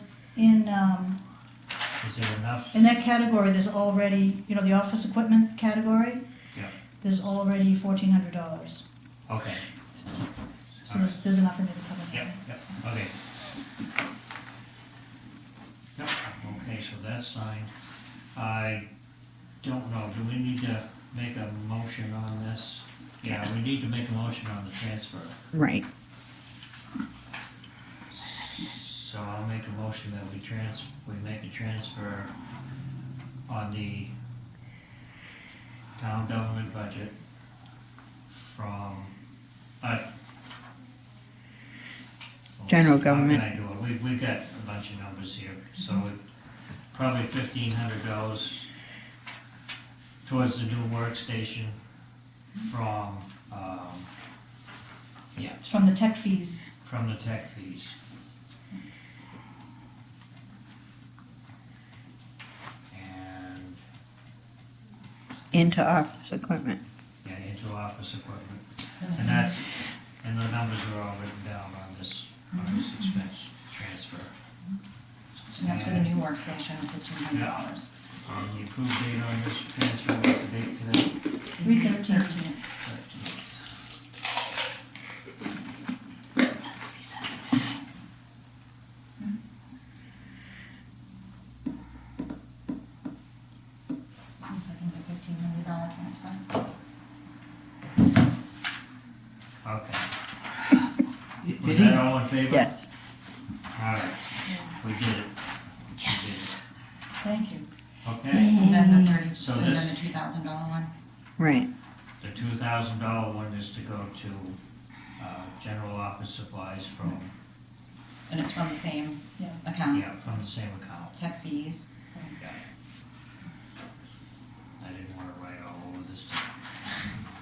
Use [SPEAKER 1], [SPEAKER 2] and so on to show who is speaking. [SPEAKER 1] in, um,
[SPEAKER 2] Is there enough?
[SPEAKER 1] in that category, there's already, you know, the office equipment category?
[SPEAKER 2] Yeah.
[SPEAKER 1] There's already fourteen hundred dollars,
[SPEAKER 2] Okay,
[SPEAKER 1] so there's, there's enough in there to cover that.
[SPEAKER 2] yep, yep, okay. Yep, okay, so that's signed. I don't know, do we need to make a motion on this? Yeah, we need to make a motion on the transfer.
[SPEAKER 3] Right.
[SPEAKER 2] So I'll make a motion that we trans, we make a transfer on the town government budget from, uh.
[SPEAKER 3] General
[SPEAKER 2] How can I do it? We've, we've got a bunch of numbers here, so it- probably fifteen hundred dollars towards the new workstation from, um,
[SPEAKER 1] It's from the tech fees,
[SPEAKER 2] from the tech fees. And,
[SPEAKER 3] Into office equipment.
[SPEAKER 2] yeah, into office equipment. And that's, and the numbers are all written down on this, on this expense transfer.
[SPEAKER 4] And Mm-hmm. that's for the new workstation, fifteen hundred dollars.
[SPEAKER 2] And the approved date on this transfer, what's the date today?
[SPEAKER 1] Three thirteen.
[SPEAKER 4] Mm-hmm. You second the fifteen hundred dollar transfer?
[SPEAKER 2] Okay.
[SPEAKER 5] Did
[SPEAKER 2] Was
[SPEAKER 5] he-
[SPEAKER 2] that all in favor?
[SPEAKER 3] Yes.
[SPEAKER 2] All right, we did it, Yes.
[SPEAKER 1] thank you.
[SPEAKER 2] okay?
[SPEAKER 4] And then the thirty,
[SPEAKER 2] So
[SPEAKER 4] and then the
[SPEAKER 2] this-
[SPEAKER 4] two thousand dollar one?
[SPEAKER 3] Right.
[SPEAKER 2] The two thousand dollar one is to go to, uh, general office supplies from,
[SPEAKER 4] And it's from the same
[SPEAKER 1] Yeah.
[SPEAKER 4] account,
[SPEAKER 2] yeah, from the same account.
[SPEAKER 4] tech fees.
[SPEAKER 2] I didn't wanna write all over this stuff.